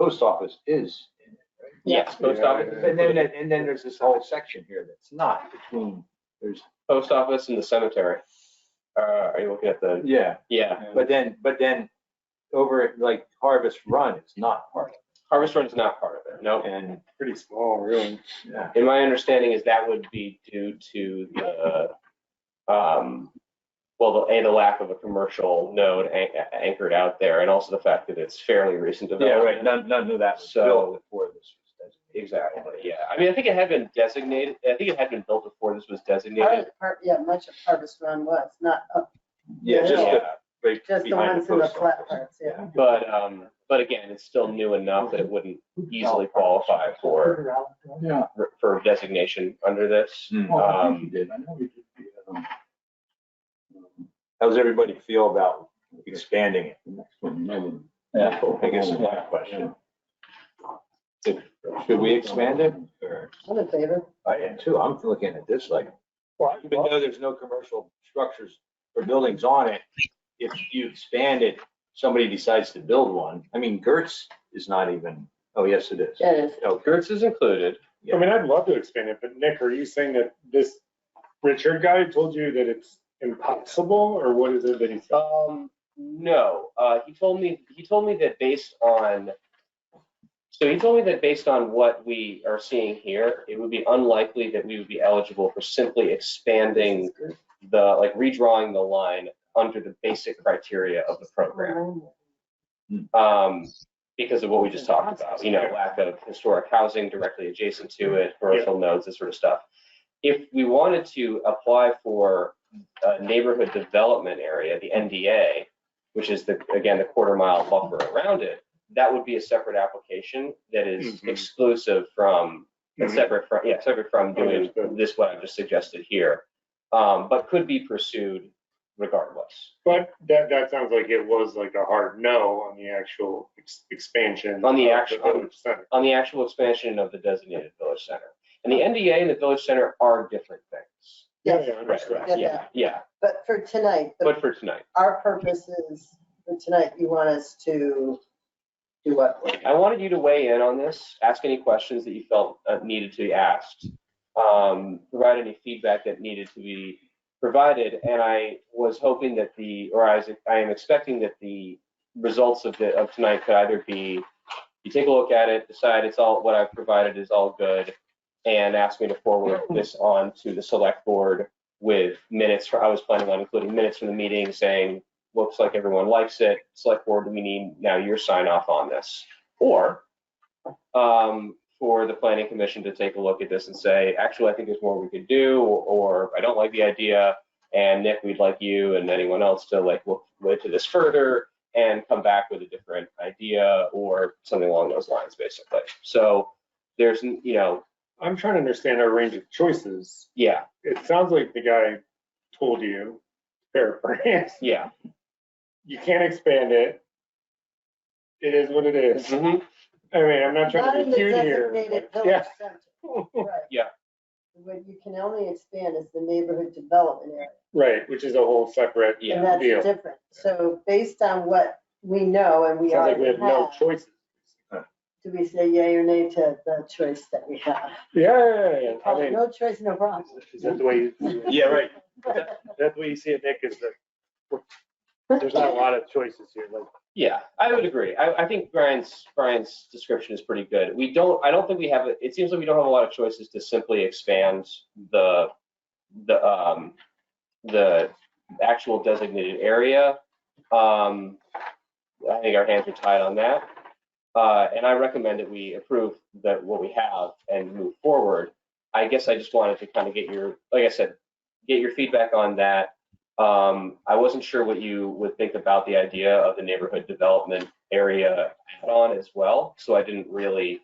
post office is. in it, right? Yes, post office, And then, uh, and then there's this whole section here that's not between, there's, post office and the cemetery. Uh, are you looking at the, yeah, yeah, but then, but then over at like Harvest Run is not part Harvest Run is not part of it, no. of it. And, Pretty small, really. yeah, And my understanding is that would be due to the, um, well, the- and the lack of a commercial node an- anchored out there, and also the fact that it's fairly recent yeah, development. right, none, none of that was So- built before this. was designated. Exactly, yeah. I mean, I think it had been designated, I think it had been built before this was Part designated. of, part, yeah, much of Harvest Run was, not, up- Yeah, just the, Yeah, right just the behind ones in the post flat office. parts, yeah. But, um, but again, it's still new enough that it wouldn't easily qualify for, Yeah. for designation under this. Um, Hmm. Well, I think you did. I know you did. the, um, um, How does everybody feel about expanding it? The next one, Melon. Yeah, I guess that's my question. Should we expand it? or- I'm in favor. I am too. I'm looking at this like, even though there's no commercial structures or buildings on it, if you expand it, somebody decides to build one. I mean, Gertz is not even, oh, yes, it is. Yeah, it is. No, Gertz is included. Yeah. I mean, I'd love to expand it, but Nick, are you saying that this Richard guy told you that it's impossible or what is it that he said? Um, no, uh, he told me, he told me that based on, so he told me that based on what we are seeing here, it would be unlikely that we would be eligible for simply expanding the, like redrawing the line under the basic criteria of the program. Um, because of what we just talked about, you know, lack of historic housing directly adjacent to it, commercial nodes, this sort of stuff. If we wanted to apply for a neighborhood development area, the NDA, which is the, again, the quarter mile buffer around it, that would be a separate application that is Mhm. exclusive from, and separate from, yeah, separate from doing Understood. this, what I've just suggested here. Um, but could be pursued regardless. But that, that sounds like it was like a hard no on the actual ex- expansion. On the of actual- village center. on the actual expansion of the designated village center. And the NDA and the village center are different things. Yeah, Yes, yeah, understood. Yeah. Yeah, yeah, but for tonight, the- but for tonight, our purpose is, for tonight, you want us to do what? I wanted you to weigh in on this, ask any questions that you felt uh, needed to be asked, um, provide any feedback that needed to be provided, and I was hoping that the, or I was, I am expecting that the results of the, of tonight could either be, you take a look at it, decide it's all, what I've provided is all good, and ask me to forward this on to the select board with minutes, for- I was planning on including minutes from the meeting saying, looks like everyone likes it, select board, we need now your sign off on this. Or um, for the planning commission to take a look at this and say, actually, I think there's more we could do, or I don't like the idea. And Nick, we'd like you and anyone else to like look into this further and come back with a different idea or something along those lines, basically. So there's, you know, I'm trying to understand our range of choices. yeah, It sounds like the guy told you, paraphrase, yeah. you can't expand it. It is what it is. Mhm. I mean, I'm not Not trying in to the be cute here. designated Yeah. village center. Right. Yeah. What you can only expand is the neighborhood development area. Right, which is a whole separate, Yeah. And that's deal. different. So based on what we know and we sounds like already we have no have, choices. do we say yay or nay to the choice that we have? Yeah, I Oh, mean, No choice, no problem. is that the way you? Yeah, right. That's the way you see it, Nick, is that there's not a lot of choices here, like. Yeah, I would agree. I, I think Brian's, Brian's description is pretty good. We don't, I don't think we have, a- it seems like we don't have a lot of choices to simply expand the, the, um, the actual designated area. Um, I think our hands are tied on that. Uh, and I recommend that we approve that what we have and move forward. I guess I just wanted to kind of get your, like I said, get your feedback on that. Um, I wasn't sure what you would think about the idea of the neighborhood development area add-on as well, so I didn't really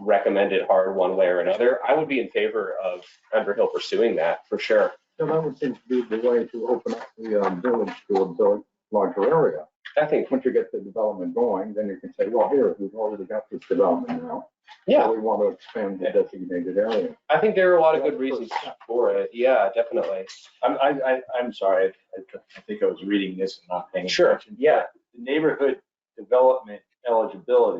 recommend it hard one way or another. I would be in favor of Underhill pursuing that for sure. So that would seem to be the way to open up the um, village to a bill- larger area. I think, Once you get the development going, then you can say, well, here, we've already got this development now. yeah, We want to expand the designated area. I think there are a lot of good reasons for it. Yeah, definitely. I'm, I, I, I'm sorry. I- I think I was reading this and not paying attention. Sure, yeah. The Neighborhood development eligibility